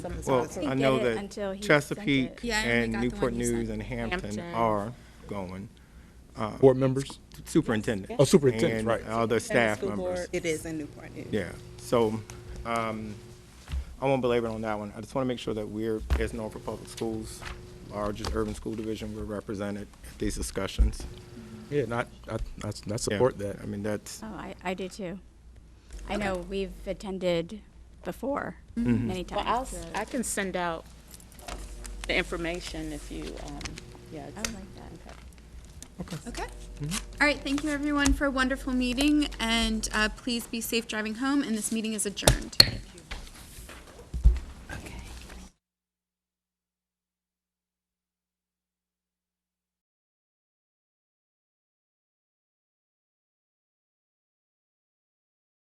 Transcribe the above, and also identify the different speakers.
Speaker 1: Some- some-
Speaker 2: Well,
Speaker 1: some-
Speaker 2: I
Speaker 3: get
Speaker 2: know
Speaker 3: it until
Speaker 2: that
Speaker 3: he sent
Speaker 2: Chesapeake
Speaker 3: it.
Speaker 4: Yeah, I only
Speaker 2: and
Speaker 4: got the
Speaker 2: Newport
Speaker 4: one you sent.
Speaker 2: News and Hampton
Speaker 1: Hampton.
Speaker 2: are going,
Speaker 5: board members?
Speaker 2: superintendent.
Speaker 5: Oh, superintendent, right.
Speaker 2: And other staff
Speaker 1: school
Speaker 2: members.
Speaker 1: board.
Speaker 4: It is in Newport News.
Speaker 2: Yeah, so, um, I won't belabor on that one. I just want to make sure that we're, as Norfolk Public Schools, largest urban school division, we're represented at these discussions.
Speaker 5: Yeah, not, I, I, I
Speaker 2: Yeah,
Speaker 5: support that.
Speaker 2: I mean, that's,
Speaker 3: Oh, I, I do too. I know we've attended before many
Speaker 1: Well, I'll,
Speaker 3: times.
Speaker 1: s-
Speaker 3: the-
Speaker 1: I can send out the information if you, um, yeah.
Speaker 3: I would like that.
Speaker 1: Okay.
Speaker 4: Okay. All right, thank you everyone for a wonderful meeting, and uh, please be safe driving home, and this meeting is adjourned.